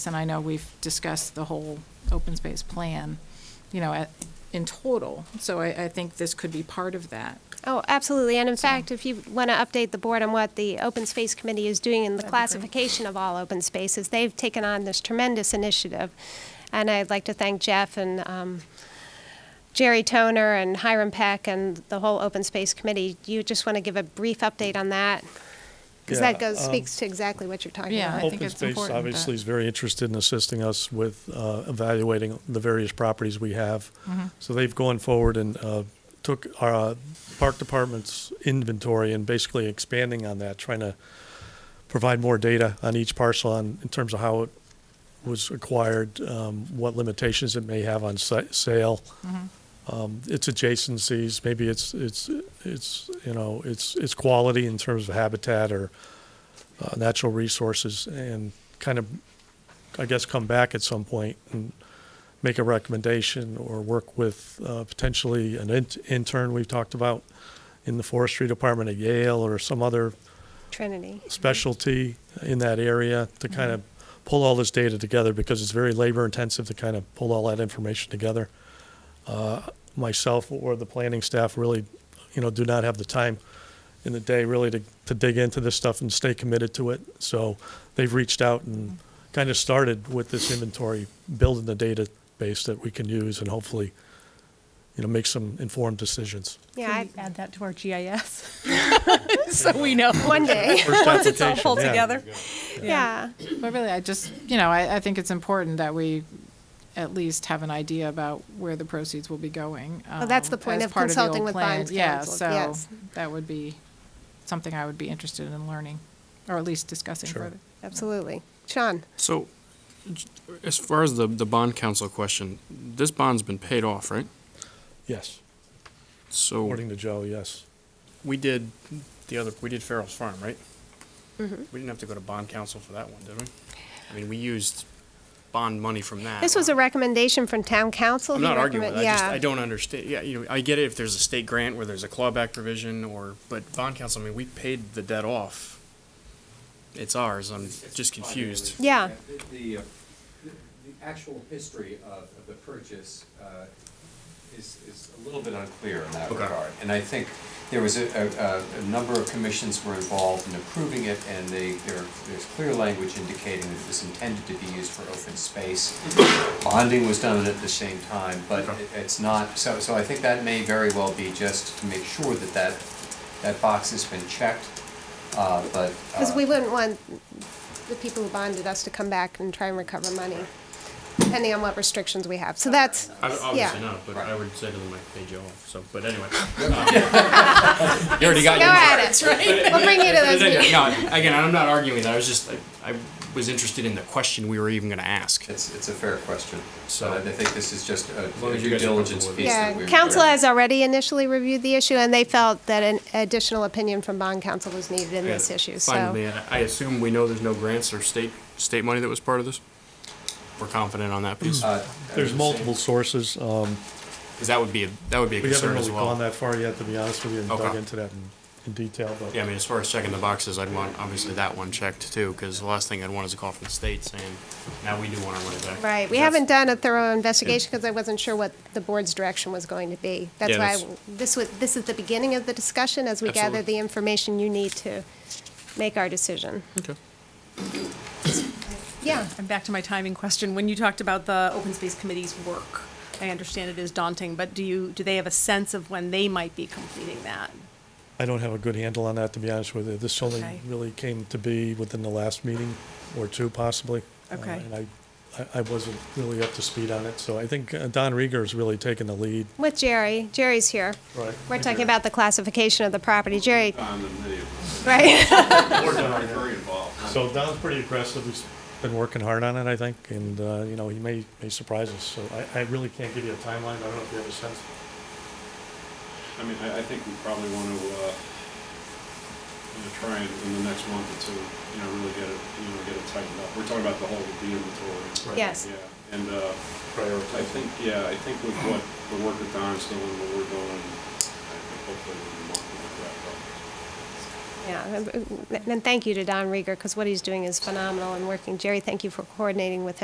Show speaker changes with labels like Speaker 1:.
Speaker 1: and I know we've discussed the whole open space plan, you know, at, in total. So I, I think this could be part of that.
Speaker 2: Oh, absolutely. And in fact, if you want to update the board on what the Open Space Committee is doing in the classification of all open spaces, they've taken on this tremendous initiative. And I'd like to thank Jeff and um, Jerry Toner and Hiram Peck and the whole Open Space Committee. You just want to give a brief update on that? Because that
Speaker 3: Yeah,
Speaker 2: goes,
Speaker 3: um,
Speaker 2: speaks to exactly what you're talking
Speaker 1: Yeah. I
Speaker 2: about.
Speaker 1: think
Speaker 3: Open
Speaker 1: it's
Speaker 3: Space
Speaker 1: important, but-
Speaker 3: obviously is very interested in assisting us with uh, evaluating the various properties we have.
Speaker 2: Mm-hmm.
Speaker 3: So they've gone forward and uh, took our uh, park department's inventory and basically expanding on that, trying to provide more data on each parcel on, in terms of how it was acquired, um, what limitations it may have on sa- sale, um, its adjacencies, maybe it's, it's, it's, you know, it's, it's quality in terms of habitat or uh, natural resources and kind of, I guess, come back at some point and make a recommendation or work with uh, potentially an in- intern we've talked about in the forestry department at Yale or some other
Speaker 2: Trinity.
Speaker 3: specialty in that area to kind of pull all this data together because it's very labor intensive to kind of pull all that information together. Uh, Myself or the planning staff really, you know, do not have the time in the day really to, to dig into this stuff and stay committed to it. So they've reached out and kind of started with this inventory, building the database that we can use and hopefully, you know, make some informed decisions.
Speaker 2: Yeah, I-
Speaker 4: add that to our GIS? So we know.
Speaker 2: one day.
Speaker 4: Once it's all pulled
Speaker 3: application, yeah.
Speaker 4: together.
Speaker 2: Yeah.
Speaker 1: But really, I just, you know, I, I think it's important that we at least have an idea about where the proceeds will be going.
Speaker 2: Well, that's the
Speaker 1: um,
Speaker 2: point
Speaker 1: as
Speaker 2: of
Speaker 1: part the
Speaker 2: consulting
Speaker 1: old
Speaker 2: with
Speaker 1: plan.
Speaker 2: Bonds Council,
Speaker 1: Yeah,
Speaker 2: yes.
Speaker 1: so that would be something I would be interested in learning, or at least discussing
Speaker 3: Sure.
Speaker 1: further.
Speaker 2: Absolutely. Sean?
Speaker 5: So, j- as far as the, the bond council question, this bond's been paid off, right?
Speaker 3: Yes,
Speaker 5: So,
Speaker 3: according to Joe, yes.
Speaker 5: we did the other, we did Farrell's Farm, right?
Speaker 2: Mm-hmm.
Speaker 5: We didn't have to go to bond council for that one, did we? I mean, we used bond money from that.
Speaker 2: This was a recommendation from town council.
Speaker 5: I'm
Speaker 2: He
Speaker 5: not arguing with
Speaker 2: recommend-
Speaker 5: it, I just,
Speaker 2: yeah.
Speaker 5: I don't understand, yeah, you know, I get it if there's a state grant where there's a clawback provision or, but bond council, I mean, we paid the debt off. It's ours, I'm just confused.
Speaker 2: Yeah.
Speaker 6: The- The, uh, the the actual history of, of the purchase uh, is, is a little bit unclear in that
Speaker 5: Okay.
Speaker 6: regard. And I think there was a, a, a- a number of commissions were involved in approving it, and they, there, there's clear language indicating that it was intended to be used for open space. Bonding was done at the same time, but
Speaker 5: Okay.
Speaker 6: it- it's not, so, so I think that may very well be just to make sure that that, that box has been checked, uh, but.
Speaker 2: Because
Speaker 6: uh,
Speaker 2: we wouldn't want the people who bonded us to come back and try and recover money, depending on what restrictions we have. So that's,
Speaker 5: I would- Obviously
Speaker 2: yeah.
Speaker 5: not, but I would say to them, I paid you off, so, but anyway. Um,
Speaker 6: You already got
Speaker 2: Go at it. We'll bring you to those meetings.
Speaker 5: No, again, I'm not arguing that, I was just, like, I was interested in the question we were even gonna ask.
Speaker 6: It's, it's a fair question.
Speaker 5: So-
Speaker 6: So I think this is just a
Speaker 5: long
Speaker 6: a
Speaker 5: as you
Speaker 6: due
Speaker 5: guys are
Speaker 6: diligence
Speaker 5: comfortable with
Speaker 6: piece that
Speaker 2: Yeah,
Speaker 6: we.
Speaker 2: council has already initially reviewed the issue, and they felt that an additional opinion from bond council was needed in this issue,
Speaker 5: Finally,
Speaker 2: so.
Speaker 5: and I assume we know there's no grants or state, state money that was part of this? We're confident on that piece,
Speaker 3: Mm.
Speaker 6: Uh,
Speaker 3: There's multiple sources. Um,
Speaker 5: because that would be, a- that would be a
Speaker 3: We haven't
Speaker 5: concern
Speaker 3: really
Speaker 5: as well.
Speaker 3: gone that far yet, to be honest with you, and dug
Speaker 5: Okay.
Speaker 3: into that in, in detail, but.
Speaker 5: Yeah, I mean, as far as checking the boxes, I'd want, obviously, that one checked too, because the last thing I'd want is a call from the state saying, now we do want our money back.
Speaker 2: Right, we
Speaker 5: That's-
Speaker 2: haven't done a thorough investigation because I wasn't sure what the board's direction was going to be. That's
Speaker 5: Yeah,
Speaker 2: why,
Speaker 5: that's-
Speaker 2: I- this was, this is the beginning of the discussion as we gather
Speaker 5: Absolutely.
Speaker 2: the information you need to make our decision.
Speaker 5: Okay.
Speaker 2: Yeah.
Speaker 4: And back to my timing question, when you talked about the Open Space Committee's work, I understand it is daunting, but do you, do they have a sense of when they might be completing that?
Speaker 3: I don't have a good handle on that, to be honest with you. This only
Speaker 4: Okay.
Speaker 3: really came to be within the last meeting or two possibly. Uh,
Speaker 4: Okay.
Speaker 3: And I, I, I wasn't really up to speed on it, so I think uh, Don Rieger's really taken the lead.
Speaker 2: With Jerry, Jerry's here.
Speaker 3: Right.
Speaker 2: We're talking about the classification of the property, Jerry,
Speaker 7: on the video.
Speaker 2: right?
Speaker 7: We're not very involved.
Speaker 3: So Don's pretty aggressive. He's been working hard on it, I think, and, uh, you know, he may, may surprise us. So I, I really can't give you a timeline. I don't know if you have a sense.
Speaker 7: I mean, I, I think we probably want to, uh, you know, try and in the next month or two, you know, really get it, you know, get it tightened up. We're talking about the whole, the inventory.
Speaker 2: Yes.
Speaker 7: Yeah, and, uh, I
Speaker 3: Prioritize.
Speaker 7: think, yeah, I think with what, the work that Don's doing, what we're doing, I think hopefully in a month we'll wrap up.
Speaker 2: Yeah, and- and thank you to Don Rieger, because what he's doing is phenomenal and working. Jerry, thank you for coordinating with him.